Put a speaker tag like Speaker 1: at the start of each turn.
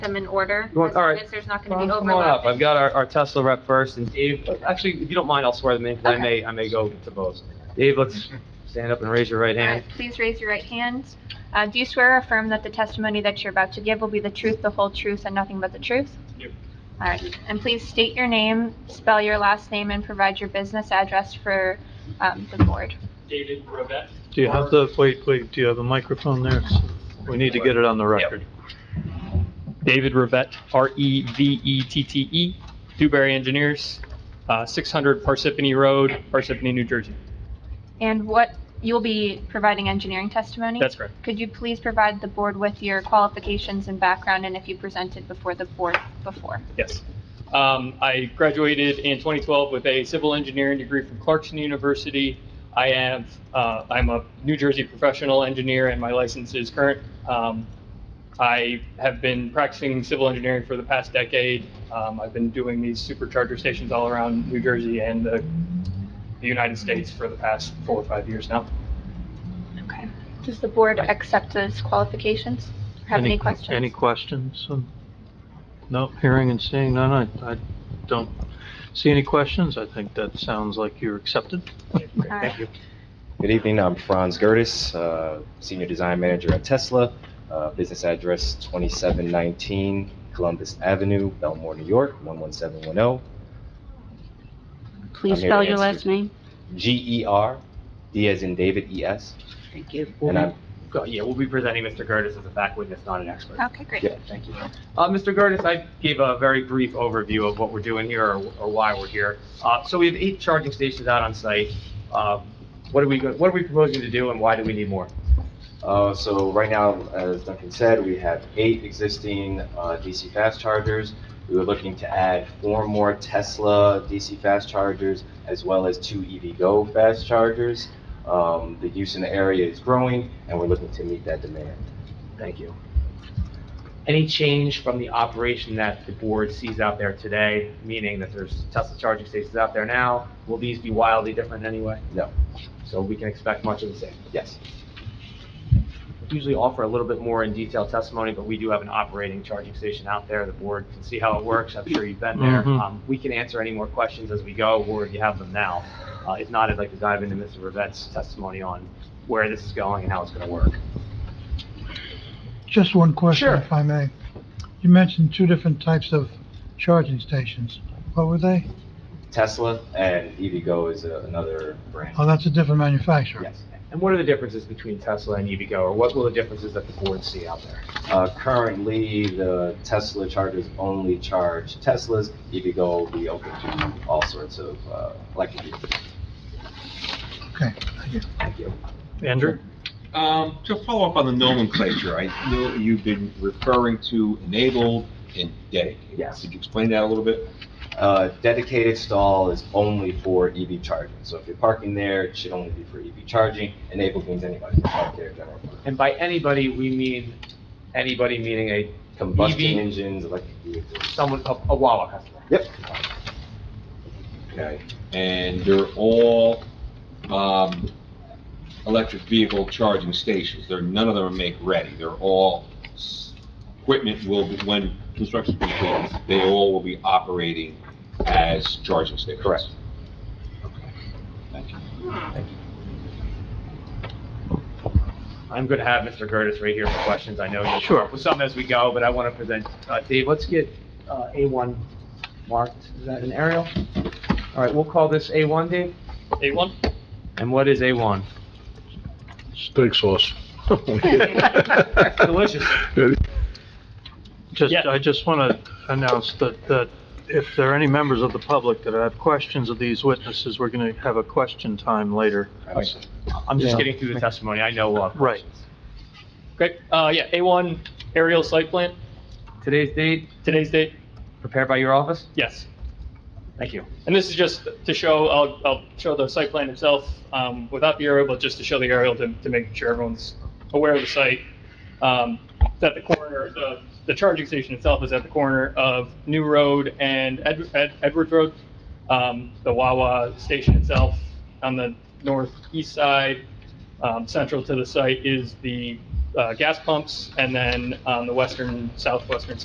Speaker 1: them in order.
Speaker 2: You want- all right.
Speaker 1: As long as there's not
Speaker 2: Come
Speaker 1: going to be
Speaker 2: on up, I've
Speaker 1: overlap.
Speaker 2: got our our Tesla rep first, and Dave, actually, if you don't mind, I'll swear them in, because I may, I may go to both. Dave, let's stand up and raise your right
Speaker 1: All
Speaker 2: hand.
Speaker 1: right, please raise your right hand. Uh, Do you swear or affirm that the testimony that you're about to give will be the truth, the whole truth, and nothing but the truth?
Speaker 2: Yep.
Speaker 1: All right, and please state your name, spell your last name, and provide your business address for um, the board.
Speaker 3: David Robet.
Speaker 4: Do you have the, wait, wait, do you have a microphone there? We need to get it on the record.
Speaker 3: David Revette, E R-E-V-E-T-T-E, E, Dewberry Engineers, uh, 600 Parsippany Road, Parsippany, New Jersey.
Speaker 1: And what, you'll be providing engineering testimony?
Speaker 3: That's correct.
Speaker 1: Could you please provide the board with your qualifications and background, and if you presented before the board before?
Speaker 3: Yes. Um, I graduated in 2012 with a civil engineering degree from Clarkson University. I have, uh, I'm a New Jersey professional engineer and my license is current. Um, I have been practicing civil engineering for the past decade. Um, I've been doing these supercharger stations all around New Jersey and the the United States for the past four or five years now.
Speaker 1: Okay. Does the board accept those qualifications? Or Have any questions?
Speaker 4: Any questions? Um, No, hearing and seeing none, I, I don't see any questions. I think that sounds like you're accepted.
Speaker 1: All right.
Speaker 5: Good evening, I'm Franz Gertis, uh, Senior Design Manager at Tesla. Uh, Business address 2719 Columbus Avenue, Belmore, New York, 11710.
Speaker 6: Please
Speaker 5: I'm here to
Speaker 6: spell your
Speaker 5: answer.
Speaker 6: last name.
Speaker 5: G-E-R, E D as in David, E-S.
Speaker 6: Thank you.
Speaker 5: And I'm,
Speaker 2: Go- Yeah, we'll be presenting Mr. Gertis as a fact witness, not an expert.
Speaker 1: Okay, great.
Speaker 5: Yeah.
Speaker 2: Thank you. Uh, Mr. Gertis, I gave a very brief overview of what we're doing here or, or why we're here. Uh, so we have eight charging stations out on site. Uh, what are we, go- what are we proposing to do and why do we need more?
Speaker 5: uh, so right now, as Duncan said, we have eight existing uh, DC fast chargers. We were looking to add four more Tesla DC fast chargers, as well as two EVgo fast chargers. Um, The use in the area is growing, and we're looking to meet that demand.
Speaker 2: Thank you. Any change from the operation that the board sees out there today, meaning that there's Tesla charging stations out there now, will these be wildly different in any way?
Speaker 5: No.
Speaker 2: So we can expect much of the same.
Speaker 5: Yes.
Speaker 2: We Usually offer a little bit more in detail testimony, but we do have an operating charging station out there. The board can see how it works. I'm sure you've been there.
Speaker 4: Mhm.
Speaker 2: Um, We can answer any more questions as we go, or if you have them now. Uh, If not, I'd like to dive into Mr. Rivette's testimony on where this is going and how it's going to work.
Speaker 7: Just one question,
Speaker 2: Sure.
Speaker 7: if I may. You mentioned two different types of charging stations. What were they?
Speaker 5: Tesla and EVgo is a- another brand.
Speaker 7: Oh, that's a different manufacturer.
Speaker 5: Yes.
Speaker 2: And what are the differences between Tesla and EVgo, or what will the differences that the board see out there?
Speaker 5: Uh, Currently, the Tesla chargers only charge Teslas. EVgo will be open to all sorts of uh, electric vehicles.
Speaker 7: Okay, thank you.
Speaker 2: Thank you.
Speaker 4: Andrew?
Speaker 8: Um, to follow up on the nomenclature, I know you've been referring to enabled and dedicated.
Speaker 5: Yes.
Speaker 8: Could you explain that a little bit?
Speaker 5: Uh, Dedicated stall is only for EV charging. So if you're parking there, it should only be for EV charging. Enabled means anybody can park there, general purpose.
Speaker 2: And by anybody, we mean anybody meaning a,
Speaker 5: Combustion
Speaker 2: EV
Speaker 5: engines, electric vehicles.
Speaker 2: someone, a a Wawa customer.
Speaker 5: Yep.
Speaker 8: Okay. And they're all, um, electric vehicle charging stations. They're, none of them are make-ready. They're all, s- equipment will, be when construction's complete, they all will be operating as charging stations.
Speaker 5: Correct.
Speaker 2: I'm going to have Mr. Gertis right here for questions. I know you.
Speaker 4: Sure.
Speaker 2: With some as we go, but I want to present, uh, Dave, let's get uh, A1 marked. Is that an aerial? All right, we'll call this A1, Dave.
Speaker 3: A1?
Speaker 2: And what is A1?
Speaker 9: Steak sauce.
Speaker 2: Delicious.
Speaker 4: Just,
Speaker 3: Yeah.
Speaker 4: I just want to announce that, that if there are any members of the public that have questions of these witnesses, we're going to have a question time later.
Speaker 2: I'm just
Speaker 4: Yeah.
Speaker 2: getting through the testimony. I know, uh,
Speaker 4: Right.
Speaker 3: Great. Uh, yeah, A1 aerial site plan,
Speaker 2: today's date,
Speaker 3: today's date?
Speaker 2: prepared by your office?
Speaker 3: Yes.
Speaker 2: Thank you.
Speaker 3: And this is just to show, I'll, I'll show the site plan itself, um, without the aerial, but just to show the aerial to, to make sure everyone's aware of the site. Um, it's at the corner, the, the charging station itself is at the corner of New Road and Ed, Ed, Edwards Road. Um, the Wawa station itself on the northeast side, um, central to the site is the, uh, gas pumps. And then on the western, southwestern